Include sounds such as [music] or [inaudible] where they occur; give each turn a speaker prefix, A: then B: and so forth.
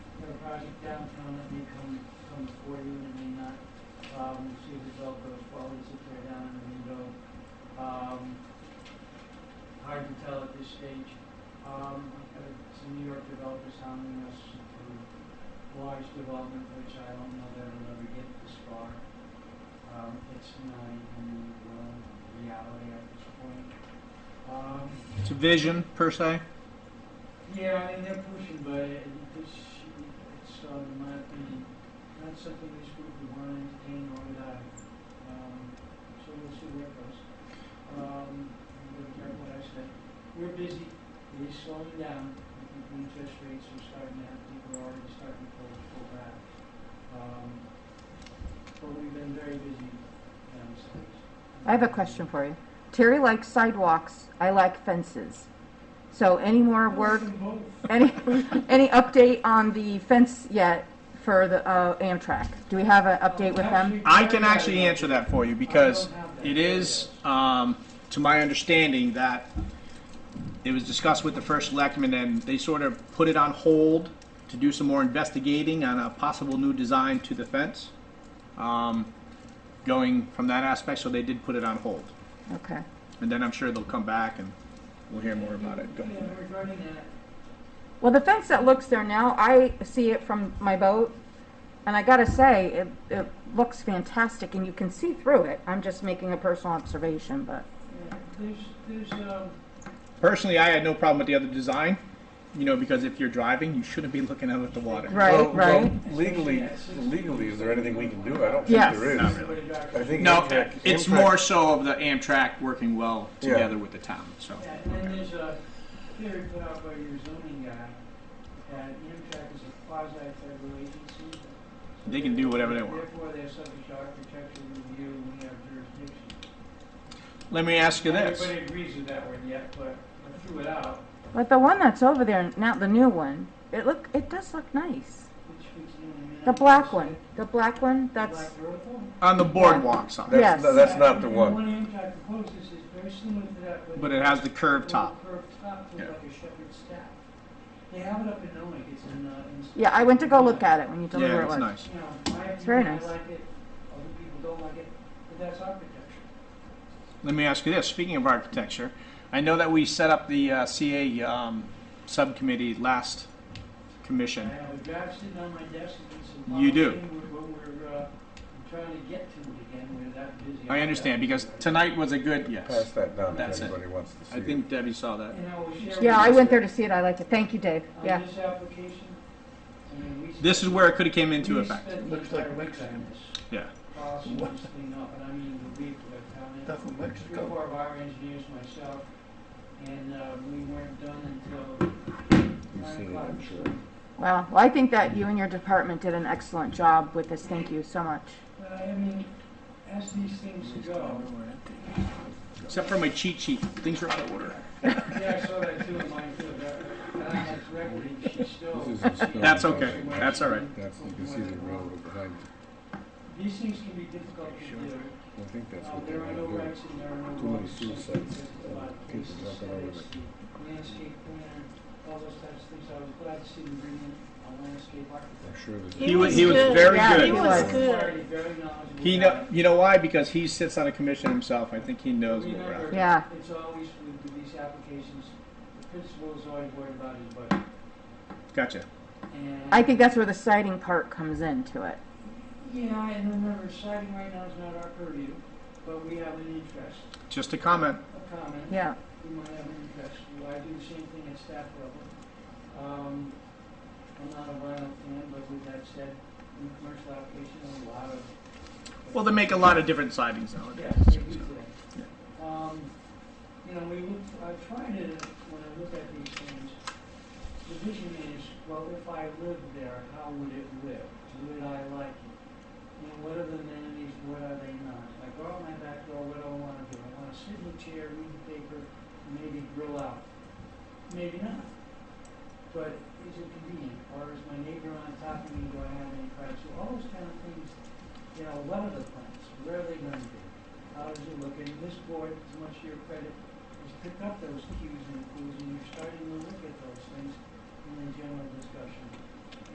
A: project downtown that may come, come before you and it may not. Um, see if the belt goes forward, it's if they're down in the window. Um, hard to tell at this stage. Um, I've got some New York developers hounding us for large development, which I don't know that it'll ever get this far. Um, it's not even, well, reality at this point. Um,
B: It's a vision per se.
A: yeah, I mean, they're pushing, but it- this, it's, um, in my opinion, not something this group would want to entertain or deny. Um, so we'll see where it goes. Um, I'm going to grab what I said. We're busy, it is slowing down. I think the interest rates are starting to, I think we're already starting to pull, pull back. Um, but we've been very busy downstairs.
C: I have a question for you. Terry likes sidewalks, I like fences. So any more
A: [laughs]
C: work, any, any update on the fence yet for the uh, Amtrak? Do we have an update with them?
B: I can actually answer that for you because it is, um, to my understanding, that it was discussed with the first selectman and they sort of put it on hold to do some more investigating on a possible new design to the fence. Um, going from that aspect, so they did put it on hold.
C: Okay,
B: And then I'm sure they'll come back and we'll hear more about it. Go
A: Yeah,
B: ahead.
A: regarding that,
C: well, the fence that looks there now, I see it from my boat, and I gotta say, it, it looks fantastic, and you can see through it. I'm just making a personal observation, but,
A: yeah, there's, there's, um,
B: Personally, I had no problem with the other design, you know, because if you're driving, you shouldn't be looking out at the water.
C: Right,
D: Well, well,
C: right.
D: Legally, legally, is there anything we can do? I don't think
C: Yes.
D: there
B: Not
D: is.
B: really.
A: somebody drives
D: I think
B: No,
D: Amtrak-
B: it's
D: Amtrak-
B: more so of the Amtrak working well
D: Yeah.
B: together with the town, so.
A: Yeah, and then there's a theory put out by your zoning guy that Amtrak is a quasi-federal agency.
B: They can do whatever they want.
A: Therefore, they're subject to architectural review and we have jurisdiction.
B: Let me ask you this.
A: Everybody agrees with that one yet, but I threw it out,
C: but the one that's over there, now the new one, it look, it does look nice.
A: which we can eliminate.
C: The black one, the black one,
A: The
C: that's.
A: black vertical.
B: On the boardwalk side,
C: Yeah. Yes.
D: That's, no, that's not the
A: And
D: one.
A: one Amtrak proposes is very similar to that, but.
B: but it has the curved
A: with a
B: top.
A: Curved top with
B: Yeah.
A: like a shepherd's staff. They have it up in Noe, it's in, uh. in-
C: Yeah, I went to go look at it when you told me
B: Yeah,
C: where it
B: it's
C: was.
B: nice.
A: You know, my
C: It's very
A: opinion, I
C: nice.
A: like it, other people don't like it, but that's architecture.
B: Let me ask you this. Speaking of architecture, I know that we set up the uh, CA um, subcommittee last
A: I
B: commission.
A: have a draft sitting on my desk and some.
B: You do.
A: policy We're, we're, we're, uh, trying to get to it again, we're that busy.
B: I understand because tonight was a good
D: Pass
B: yes.
D: that down
B: That's
D: if
B: it.
D: anybody wants to see
B: I think Debbie saw that.
A: And I will share.
C: Yeah, I
A: with
C: went
A: you
C: there to see it. I liked it. Thank you, Dave.
A: On
C: Yeah.
A: this application, I mean, we.
B: This is
A: spent-
B: where it could have came into
A: we
B: effect.
A: spent the
E: Looks like
A: entire
E: Wix
A: week on
E: Ham.
A: this,
B: Yeah.
A: polishing this thing up, and I mean, the week that counted.
E: Tá com medo de
A: three or
E: calor.
A: four of our engineers, myself, and, uh, we weren't done until
D: You've
A: nine
D: seen it,
A: o'clock.
D: I'm sure.
C: Wow. Well, I think that you and your department did an excellent job with this. Thank you so much.
A: But I mean, as these things go,
B: Except for my cheat sheet, things are out of order.
A: yeah, I saw that too, in mine too, that, and I had recording, she still.
D: This is a
B: That's okay. That's all right.
D: That's, you can see the railroad behind
A: These things can be difficult to do.
D: you. I think that's
A: Uh,
D: what they
A: There are
D: want
A: no
D: to
A: rights and there are no
D: Too many
A: wrongs.
D: suicides,
A: There's a
D: uh,
A: lot of
D: people
A: cases,
D: jumping over
A: aesthetics, the Landscape plan, all those types of things. I was glad to see them bring in a landscape
D: do. I'm
A: architect.
D: sure there's.
B: He was- he was very
C: Yeah,
B: good.
C: he
D: was
C: was.
D: good.
A: Already very knowledgeable
B: He
A: guy.
B: know, you know why? Because he sits on a commission himself. I think he knows what we're after.
A: Remember,
C: Yeah.
A: It's always with these applications, the principal is always worried about his budget.
B: Gotcha.
A: And
C: I think that's where the siding part comes into it.
A: Yeah, and remember, citing right now is not our purview, but we have an interest,
B: Just a comment.
A: a comment.
C: Yeah.
A: We might have an interest. Well, I do the same thing at staff level. Um, I'm not a violent fan, but with that said, in commercial application, a lot of.
B: Well, they make a lot of different sidings nowadays.
A: Yes, they do
B: Yeah.
A: today. Um, you know, we look, I try to, when I look at these things, the vision is, well, if I lived there, how would it live? Would I like it? And what are the amenities, what are they not? If I go out my back door, what do I wanna do? I wanna sit in a chair, read the paper, maybe grill out. Maybe not. But is it convenient? Or is my neighbor on top of me, do I have any privacy? All those kind of things, you know, what are the plans? Where are they gonna be? How does it look? And this board, to much to your credit, has picked up those cues and clues, and you're starting to look at those things in the general discussion.